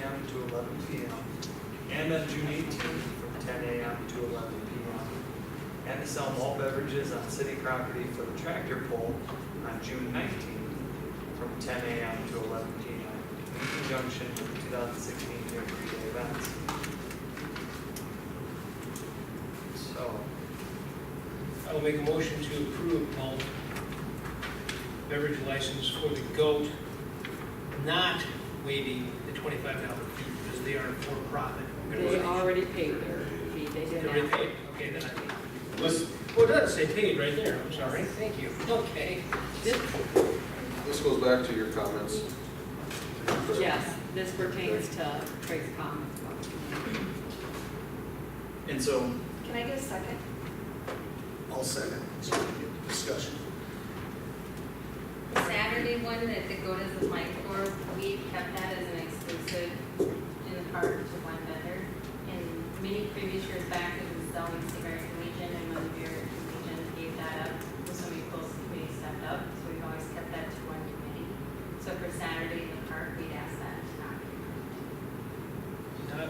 eleven P M. And on June eighteenth from ten A M to eleven P M. And to sell malt beverages on city property for the tractor pull on June nineteenth from ten A M to eleven P M. In conjunction with two thousand sixteen Jamboree Day events. So, I will make a motion to approve malt beverage license for the goat, not waiving the twenty-five dollar fee, because they are a for-profit They organization. already paid their fee, they They did already not. paid, okay, then I, listen, well, it does say paid right there, I'm sorry, thank you, okay. This, This goes back to your comments. yes, this pertains to Craig's comments. And so, Can I get a second? I'll second, so we can get discussion. The Saturday one that the go is applying for, we kept that as an exclusive in the park to one vendor. And many previous years back, it was the West American Legion and when the American Legion gave that up, somebody close to the committee stepped up, so we've always kept that to one committee. So for Saturday in the park, we'd ask that to not be. Not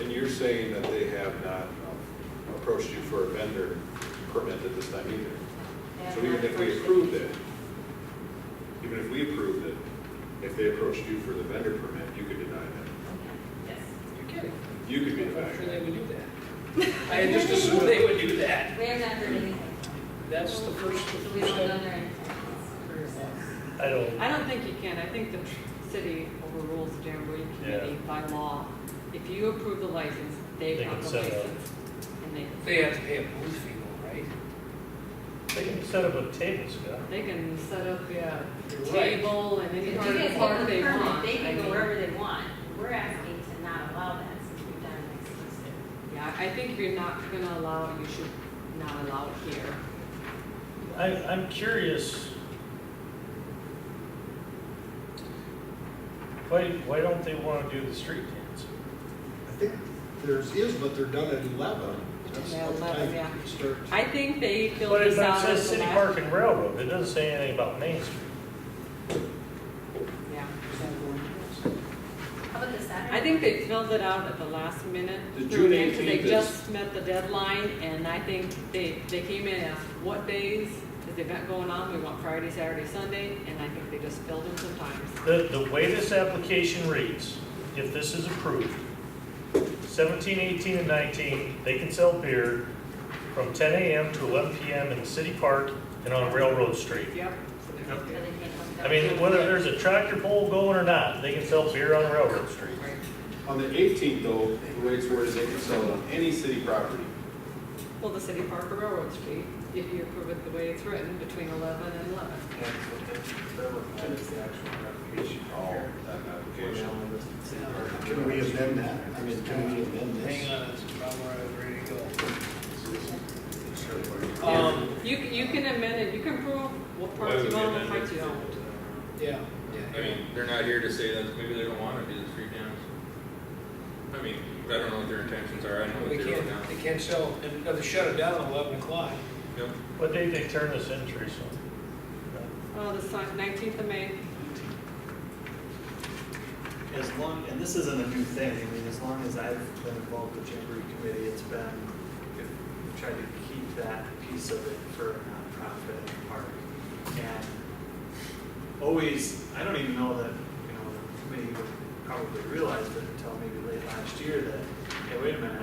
And you're saying that they have not um, approached you for a vendor permit at this time either? They have So even not if we approached approved the it, even if we approved it, if they approached you for the vendor permit, you could deny that. committee. Yes. You're kidding. You could be the I'm sure they vendor. would do that. I had just assumed they would do that. We have not heard anything. That's the first, So the we don't first know time. their intentions. I don't, I don't think you can, I think the city overrules the Jamboree Committee by law. If you approve the license, They they can got the set up. license. And they, They have to pay a booth fee, though, right? they can set up a table, Scott. they can set up Yeah. You're right. table and If any you part of guys the park have they the want. permit, they I can go mean, wherever they want. We're asking to not allow that since we've done an exclusive. Yeah, I think if you're not gonna allow it, you should not allow it here. I, I'm curious. Why, why don't they wanna do the street dance? I think theirs is, but they're done at eleven. That's Yeah, what 11, time yeah. it starts. I think they feel But it this but it out says as the city last- park and railroad, it doesn't say anything about Main Street. Yeah. How about the Saturday? I think they filled it out at the last minute. The June 18th They is- just met the deadline, and I think they, they came in and asked what days is the event going on, we want Friday, Saturday, Sunday, and I think they just filled in some times. The, the way this application reads, if this is approved, 17, 18, and nineteen, they can sell beer from ten AM to eleven PM in the city park and on Railroad Street. Yep. So they can't come down. I mean, whether there's a tractor pull going or not, they can sell beer on Railroad Street. On the eighteenth though, the way it's worded, they can sell it on any city property. Well, the city park or Railroad Street, if you approve it the way it's written, between eleven and eleven. that's what they're, they're looking at is the actual application. All here. Oh, that Where they application. only listed city park. Can we amend that? I mean, can we amend this? Hang on, that's probably where I'm ready to go. Yeah. Um, You, c- you can amend it, you can prove what Why parts would you we own, what amend parts it? you don't. yeah, I yeah. mean, they're not here to say that maybe they don't want to do the street dance. I mean, I don't know what their intentions are, I know what We they're doing now. can't, they can't sell, and they shut it down at eleven o'clock. Yep. What day they turn this in, Teresa? Oh, the sign, nineteenth of May, As long, and this isn't a new thing, I mean, as long as I've been involved with Jamboree Committee, it's been, we've tried to keep that piece of it for a nonprofit park. And always, I don't even know that, you know, the committee would probably realize, but until maybe late last year, that, hey, wait a minute,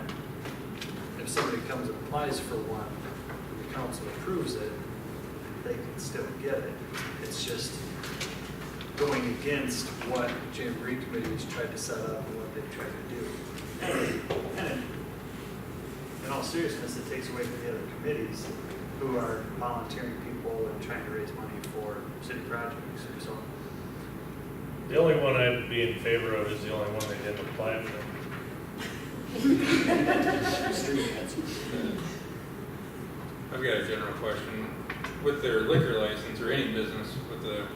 if somebody comes and applies for one, and the council approves it, they can still get it. It's just going against what Jamboree Committee has tried to set up and what they've tried to do. And in all seriousness, it takes away from the other committees who are volunteering people and trying to raise money for city projects. So The only one I'd be in favor of is the only one they didn't apply for. Street dance. I've got a general question. With their liquor license or any business with a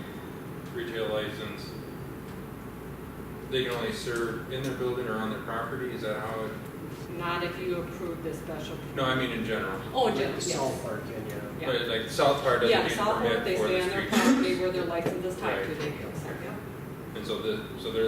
retail license, they can only serve in their building or on their property, is that how it? not if you approve this special. No, I mean in general. Oh, Jim, yes. Park, yeah, yeah. Yeah. But like South Park doesn't Yeah, need a Southport, they permit for stay the on their street. property where their license is tied to, Right. they go, so, yeah. And so the, so their